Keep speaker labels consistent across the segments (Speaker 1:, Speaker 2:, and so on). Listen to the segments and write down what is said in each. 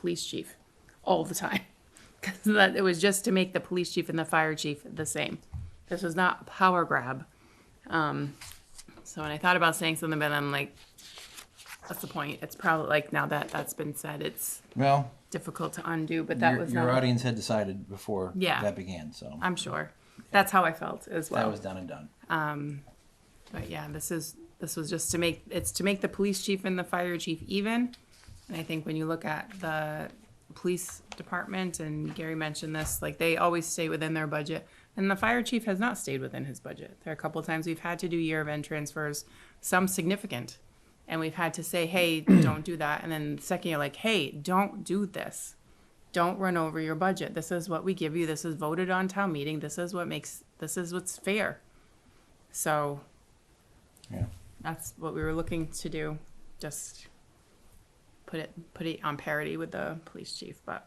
Speaker 1: police chief all the time. Because that, it was just to make the police chief and the fire chief the same. This was not a power grab. Um, so when I thought about saying something, but I'm like, that's the point. It's probably like now that that's been said, it's
Speaker 2: Well,
Speaker 1: difficult to undo, but that
Speaker 2: your,
Speaker 1: was
Speaker 2: your
Speaker 1: not,
Speaker 2: audience had decided before
Speaker 1: Yeah.
Speaker 2: that began, so
Speaker 1: I'm sure. That's how I felt as well.
Speaker 2: that was done and done.
Speaker 1: But yeah, this is, this was just to make, it's to make the police chief and the fire chief even. And I think when you look at the police department, and Gary mentioned this, like they always stay within their budget. And the fire chief has not stayed within his budget. There are a couple of times we've had to do year of end transfers, some significant. And we've had to say, hey, don't do that. And then the second, you're like, hey, don't do this. Don't run over your budget. This is what we give you. This is voted on town meeting. This is what makes, this is what's fair. So
Speaker 2: Yeah.
Speaker 1: that's what we were looking to do, just put it, put it on parity with the police chief, but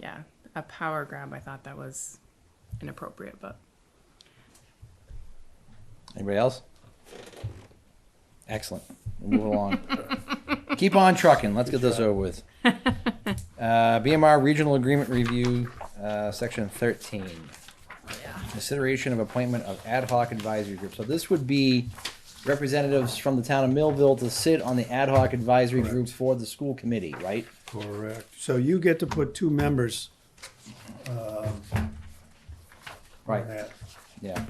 Speaker 1: yeah, a power grab, I thought that was inappropriate, but
Speaker 2: Anybody else? Excellent. We'll Move along. Keep on trucking. Let's get this over with. Uh, BMR Regional Agreement Review, uh, Section 13. Consideration of appointment of ad hoc advisory group. So this would be representatives from the town of Millville to sit on the ad hoc advisory group for the school committee, right?
Speaker 3: Correct. So you get to put two members
Speaker 2: Right.
Speaker 3: on that
Speaker 2: Yeah.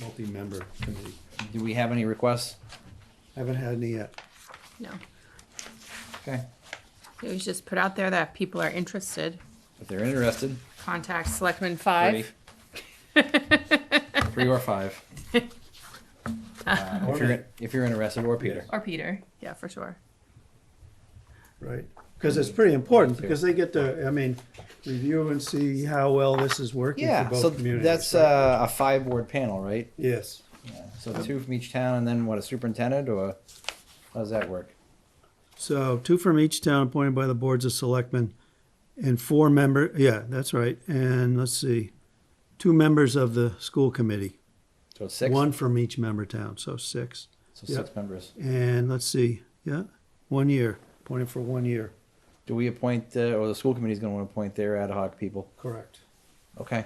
Speaker 3: multi-member committee.
Speaker 2: Do we have any requests?
Speaker 3: Haven't had any yet.
Speaker 1: no.
Speaker 2: Okay.
Speaker 1: It was just put out there that if people are interested,
Speaker 2: If they're interested,
Speaker 1: contact Selectman
Speaker 2: three,
Speaker 1: Five.
Speaker 2: three or five. Uh, if, you're, if you're interested, or Peter.
Speaker 1: Or Peter, yeah, for sure.
Speaker 3: Right, because it's pretty important, because they get to, I mean, review and see how well this is working for
Speaker 2: Yeah, so
Speaker 3: both communities.
Speaker 2: that's
Speaker 3: right?
Speaker 2: uh, a five board panel, right?
Speaker 3: Yes,
Speaker 2: So two from each town, and then what, a superintendent, or how does that work?
Speaker 3: so two from each town appointed by the boards of selectmen, and four member, yeah, that's right, and let's see, two members of the school committee.
Speaker 2: So it's six?
Speaker 3: One from each member town, so six.
Speaker 2: So
Speaker 3: yeah.
Speaker 2: six members.
Speaker 3: And let's see, yeah, one year, appointed for one year.
Speaker 2: Do we appoint, uh, or the school committee's gonna wanna appoint their ad hoc people?
Speaker 3: Correct.
Speaker 2: Okay,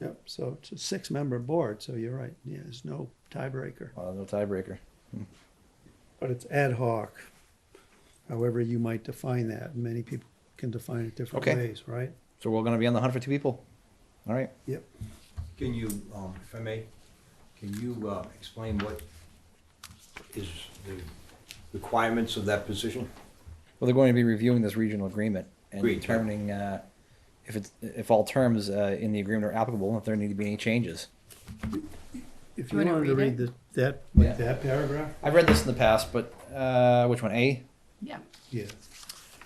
Speaker 3: Yep, so it's a six-member board, so you're right, yeah, there's no tiebreaker.
Speaker 2: well, no tiebreaker.
Speaker 3: But it's ad hoc, however you might define that. Many people can define it different
Speaker 2: Okay.
Speaker 3: ways, right?
Speaker 2: So we're gonna be on the hunt for two people? All right,
Speaker 3: Yep.
Speaker 4: Can you, um, if I may, can you, uh, explain what is the requirements of that position?
Speaker 2: well, they're going to be reviewing this regional agreement and
Speaker 4: Agreed, yeah.
Speaker 2: determining, uh, if it's, if all terms, uh, in the agreement are applicable, and if there need to be any changes.
Speaker 3: If
Speaker 1: You
Speaker 3: you
Speaker 1: wanna
Speaker 3: wanted to
Speaker 1: read
Speaker 3: read
Speaker 1: it?
Speaker 3: the, that,
Speaker 2: Yeah.
Speaker 3: like that paragraph?
Speaker 2: I've read this in the past, but, uh, which one, A?
Speaker 1: Yeah.
Speaker 3: Yeah.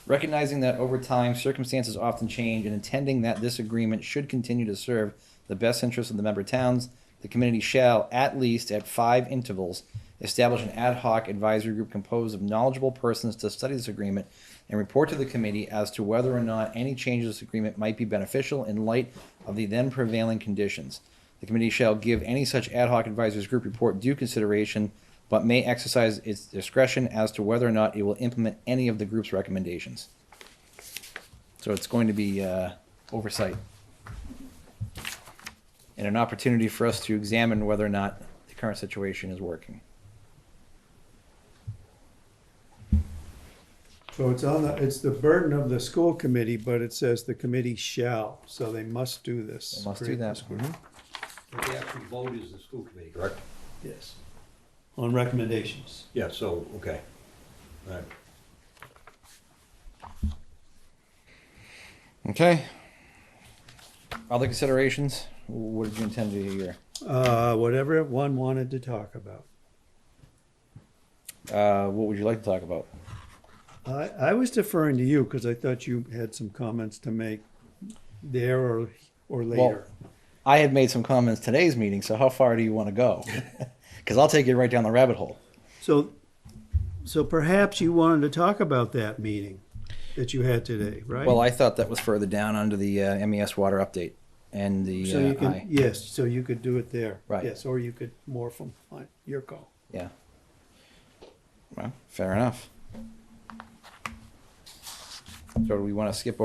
Speaker 2: recognizing that over time circumstances often change and intending that this agreement should continue to serve the best interests of the member towns the committee shall at least at five intervals establish an ad hoc advisory group composed of knowledgeable persons to study this agreement and report to the committee as to whether or not any changes to this agreement might be beneficial in light of the then prevailing conditions the committee shall give any such ad hoc advisors group report due consideration, but may exercise its discretion as to whether or not it will implement any of the group's recommendations. So it's going to be uh, oversight. And an opportunity for us to examine whether or not the current situation is working.
Speaker 3: So it's on the, it's the burden of the school committee, but it says the committee shall, so they must do this.
Speaker 2: They must do
Speaker 3: create
Speaker 2: that. Mm-hmm.
Speaker 3: this group.
Speaker 4: What they actually vote is the school committee, correct?
Speaker 3: Yes. On recommendations.
Speaker 4: Yeah, so, okay. All right.
Speaker 2: Okay. Other considerations? What did you intend to do here?
Speaker 3: Uh, whatever one wanted to talk about.
Speaker 2: Uh, what would you like to talk about?
Speaker 3: I, I was deferring to you because I thought you had some comments to make there or, or later.
Speaker 2: I had made some comments today's meeting, so how far do you want to go? Because I'll take you right down the rabbit hole.
Speaker 3: So, so perhaps you wanted to talk about that meeting that you had today, right?
Speaker 2: Well, I thought that was further down under the uh, MES water update and the
Speaker 3: So you
Speaker 2: uh,
Speaker 3: can,
Speaker 2: I,
Speaker 3: yes, so you could do it there.
Speaker 2: Right.
Speaker 3: Yes, or you could morph them, on your call.
Speaker 2: yeah. Well, fair enough. So do we want to skip